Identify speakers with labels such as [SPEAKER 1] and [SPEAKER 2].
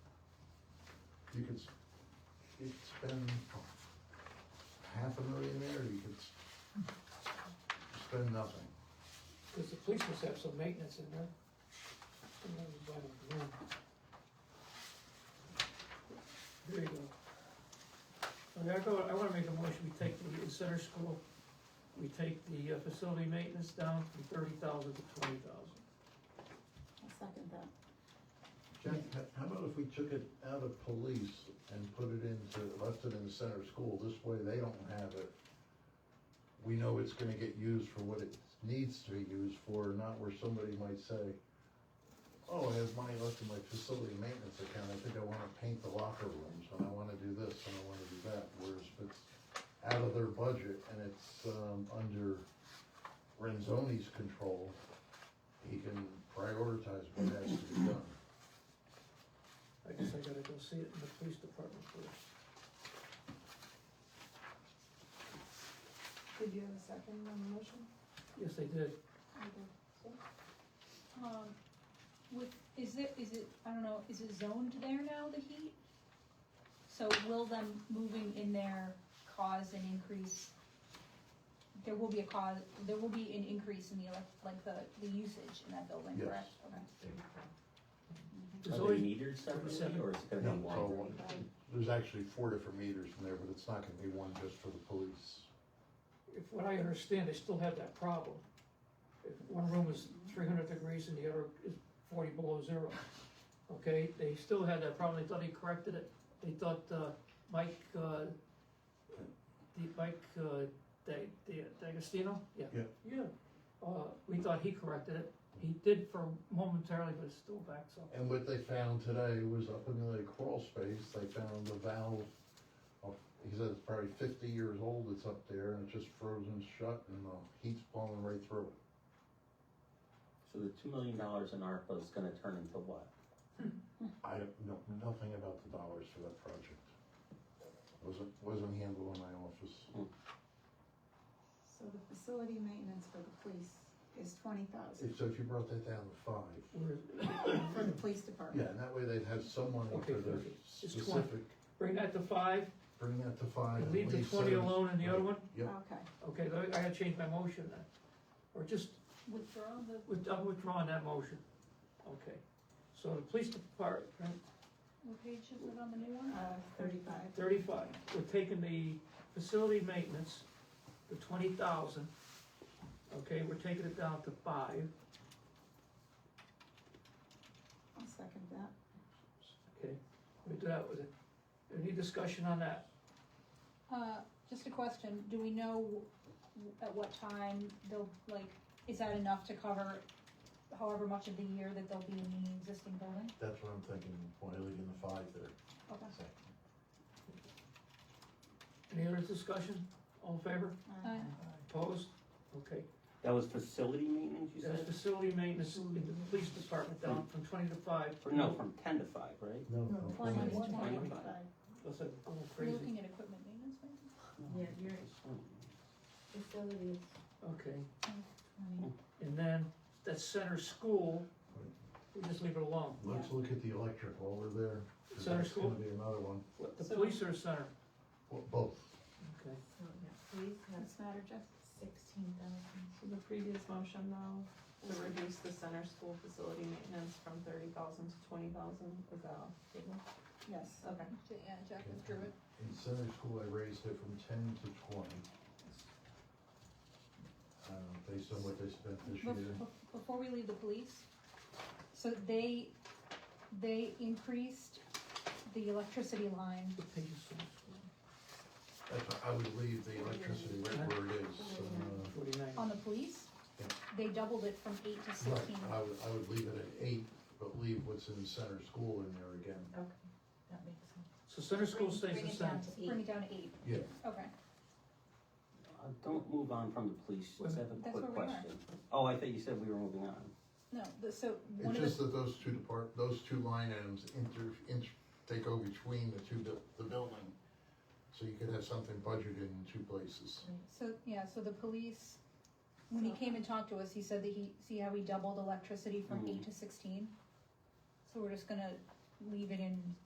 [SPEAKER 1] you could, s- you could spend half a million there, you could s- spend nothing.
[SPEAKER 2] Cause the police must have some maintenance in there. And then you buy them new. There you go. Okay, I go, I wanna make a motion, we take the center school, we take the uh, facility maintenance down from thirty thousand to twenty thousand.
[SPEAKER 3] I'll second that.
[SPEAKER 1] Jack, h- how about if we took it out of police and put it into, left it in the center school, this way they don't have it. We know it's gonna get used for what it needs to be used for, not where somebody might say, oh, I have money left in my facility maintenance account, I think I wanna paint the locker rooms, and I wanna do this, and I wanna do that, whereas if it's out of their budget and it's, um, under Renzoni's control, he can prioritize what has to be done.
[SPEAKER 2] I guess I gotta go see it in the police department first.
[SPEAKER 4] Did you have a second on the motion?
[SPEAKER 2] Yes, they did.
[SPEAKER 3] I do.
[SPEAKER 5] Um, with, is it, is it, I don't know, is it zoned there now, the heat? So will them moving in there cause an increase? There will be a cause, there will be an increase in the elec, like the, the usage in that building,
[SPEAKER 1] Yes.
[SPEAKER 5] correct? Okay.
[SPEAKER 2] There's
[SPEAKER 6] Are they
[SPEAKER 2] always,
[SPEAKER 6] metered separately, or is it gonna be
[SPEAKER 1] No,
[SPEAKER 6] one?
[SPEAKER 1] so one- There's actually four different meters in there, but it's not gonna be one just for the police.
[SPEAKER 2] if what I understand, they still have that problem. If one room is three hundred degrees and the other is forty below zero, okay, they still had that problem, they thought he corrected it, they thought, uh, Mike, uh, the, Mike, uh, Da- Da- D'Agostino, yeah.
[SPEAKER 1] Yeah.
[SPEAKER 2] Yeah, uh, we thought he corrected it, he did for momentarily, but it's still back, so.
[SPEAKER 1] And what they found today was up in the crawl space, they found the valve. of- He said it's probably fifty years old, it's up there and it's just frozen shut and the heat's blowing right through it.
[SPEAKER 6] So the two million dollars in ARPA is gonna turn into what?
[SPEAKER 1] I don't know nothing about the dollars for that project. Wasn't, wasn't handled in my office.
[SPEAKER 4] So the facility maintenance for the police is twenty thousand,
[SPEAKER 1] If, so if you brought that down to five,
[SPEAKER 2] We're,
[SPEAKER 4] for the police
[SPEAKER 1] yeah,
[SPEAKER 4] department.
[SPEAKER 1] and that way they'd have someone
[SPEAKER 2] Okay,
[SPEAKER 1] for their
[SPEAKER 2] perfect. It's 20.
[SPEAKER 1] specific,
[SPEAKER 2] bring that to five,
[SPEAKER 1] bring that to five. and
[SPEAKER 2] leave the
[SPEAKER 1] leave
[SPEAKER 2] twenty
[SPEAKER 1] seven-
[SPEAKER 2] alone and the other one,
[SPEAKER 1] Yep.
[SPEAKER 4] Okay,
[SPEAKER 2] okay, I gotta change my motion then, or just
[SPEAKER 5] Withdraw the,
[SPEAKER 2] With- I'm withdrawing that motion. Okay. So the police department,
[SPEAKER 5] what page is it on the new one?
[SPEAKER 4] uh, thirty-five,
[SPEAKER 2] thirty-five, we're taking the facility maintenance, the twenty thousand. Okay, we're taking it down to five,
[SPEAKER 4] I'll second that.
[SPEAKER 2] okay? We do that with it. Any discussion on that?
[SPEAKER 5] Uh, just a question, do we know w- at what time they'll, like, is that enough to cover however much of the year that they'll be in the existing building?
[SPEAKER 1] That's what I'm thinking, why leaving the five there?
[SPEAKER 5] Okay.
[SPEAKER 1] So,
[SPEAKER 2] Any other discussion? All in favor?
[SPEAKER 4] Uh,
[SPEAKER 5] Aye.
[SPEAKER 2] Opposed? Okay.
[SPEAKER 6] That was facility maintenance, you
[SPEAKER 2] That's
[SPEAKER 6] said?
[SPEAKER 2] facility maintenance in the police department down from twenty to five.
[SPEAKER 6] Or no, from ten to five, right?
[SPEAKER 1] No,
[SPEAKER 3] No,
[SPEAKER 1] no,
[SPEAKER 3] twenty
[SPEAKER 1] no.
[SPEAKER 3] is
[SPEAKER 5] Twenty.
[SPEAKER 3] twenty-five.
[SPEAKER 2] Listen, I'm going
[SPEAKER 5] We're
[SPEAKER 2] crazy.
[SPEAKER 5] looking at equipment maintenance, maybe?
[SPEAKER 3] Yeah, your facility is
[SPEAKER 2] Okay.
[SPEAKER 3] twenty.
[SPEAKER 2] And then that center school, we just leave it alone.
[SPEAKER 1] Let's look at the electric while we're there. 'cause
[SPEAKER 2] Center
[SPEAKER 1] that's gonna
[SPEAKER 2] school?
[SPEAKER 1] Be another one,
[SPEAKER 2] The police are center.
[SPEAKER 1] Well, both.
[SPEAKER 2] Okay.
[SPEAKER 3] So, yeah, please have
[SPEAKER 4] What's the matter, Jeff?
[SPEAKER 3] sixteen thousand.
[SPEAKER 7] So the previous motion though, to reduce the center school facility maintenance from thirty thousand to twenty thousand, is that off the table?
[SPEAKER 4] Yes,
[SPEAKER 7] Okay.
[SPEAKER 5] Yeah, Jack withdrew it.
[SPEAKER 1] In center school, I raised it from ten to twenty. Uh, based on what they spent this
[SPEAKER 5] Bef-
[SPEAKER 1] year.
[SPEAKER 5] bef- Before we leave the police, so they, they increased the electricity line.
[SPEAKER 2] What page is center school?
[SPEAKER 1] That's why I would leave the electricity right where it is. uh,
[SPEAKER 5] On
[SPEAKER 2] Forty-nine.
[SPEAKER 5] the police,
[SPEAKER 1] Yeah.
[SPEAKER 5] they doubled it from eight to sixteen.
[SPEAKER 1] Right, Uh, I would, I would leave it at eight, but leave what's in center school in there again.
[SPEAKER 3] That makes sense.
[SPEAKER 2] So center school stays
[SPEAKER 3] Bring
[SPEAKER 2] the
[SPEAKER 3] it down
[SPEAKER 2] same.
[SPEAKER 3] to
[SPEAKER 5] Bring
[SPEAKER 3] eight.
[SPEAKER 5] it down to eight,
[SPEAKER 1] Yeah,
[SPEAKER 5] okay.
[SPEAKER 6] Uh, Don't move on from the police, just have a
[SPEAKER 5] That's
[SPEAKER 6] quick
[SPEAKER 5] where we are.
[SPEAKER 6] question. Oh, I thought you said we were moving on.
[SPEAKER 5] No, the, so one
[SPEAKER 1] it's
[SPEAKER 5] of the
[SPEAKER 1] just that those two depart, those two line items inter, inter, they go between the two, buil- the building. So you could have something budgeted in two places.
[SPEAKER 5] So, yeah, so the police, when he came and talked to us, he said that he, see how he doubled electricity from eight to sixteen? So we're just gonna leave it in